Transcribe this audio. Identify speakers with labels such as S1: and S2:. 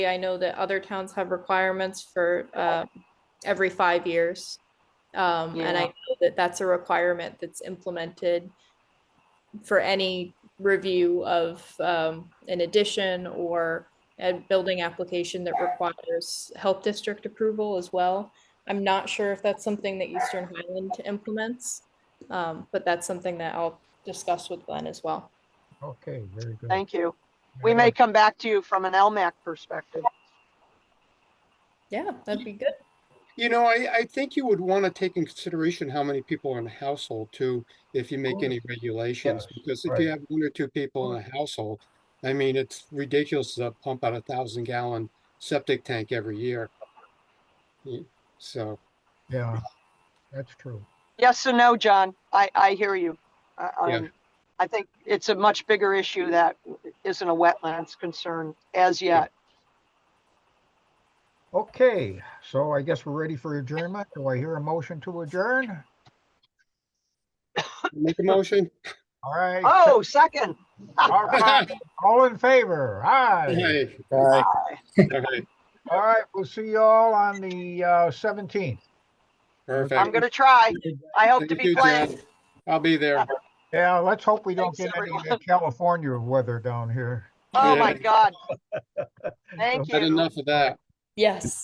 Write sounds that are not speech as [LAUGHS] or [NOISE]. S1: I know that other towns have requirements for uh, every five years. Um, And I
S2: Yeah.
S1: know that that's a requirement that's implemented for any review of um, an addition or a building application that requires health district approval as well. I'm not sure if that's something that Eastern Highland implements, um, but that's something that I'll discuss with Glenn as well.
S3: Okay, very good.
S2: Thank you.
S3: Very
S2: We may
S3: good.
S2: come back to you from an LMAC perspective.
S1: Yeah, that'd be good.
S4: You know, I, I think you would want to take in consideration how many people are in a household too, if you make
S3: course.
S4: any regulations,
S3: Yes,
S4: because if
S3: right.
S4: you have one or two people in a household, I mean, it's ridiculous to pump out a thousand gallon septic tank every year. Y- So,
S3: Yeah, that's true.
S2: Yes and no, John. I, I hear you. I,
S4: Yeah.
S2: I'm- I think it's a much bigger issue that isn't a wetlands concern as yet.
S3: Okay, so I guess we're ready for adjournment. Do I hear a motion to adjourn?
S4: make a motion? [LAUGHS]
S3: All right.
S2: Oh, second.
S3: all right,
S2: [LAUGHS]
S3: All in favor? Aye.
S4: Hey,
S2: Aye.
S4: all right,
S3: All right, we'll see you all on the uh, 17th.
S2: I'm
S4: perfect.
S2: gonna try. I hope to
S4: Thank
S2: be
S4: you,
S2: playing.
S4: Jen. I'll be there.
S3: Yeah, let's hope we don't
S2: Thanks,
S3: get any of
S2: everyone.
S3: that California weather down here.
S2: Oh, my
S4: [LAUGHS] Yeah.
S2: God. Thank
S4: Had
S2: you.
S4: enough of that.
S1: Yes.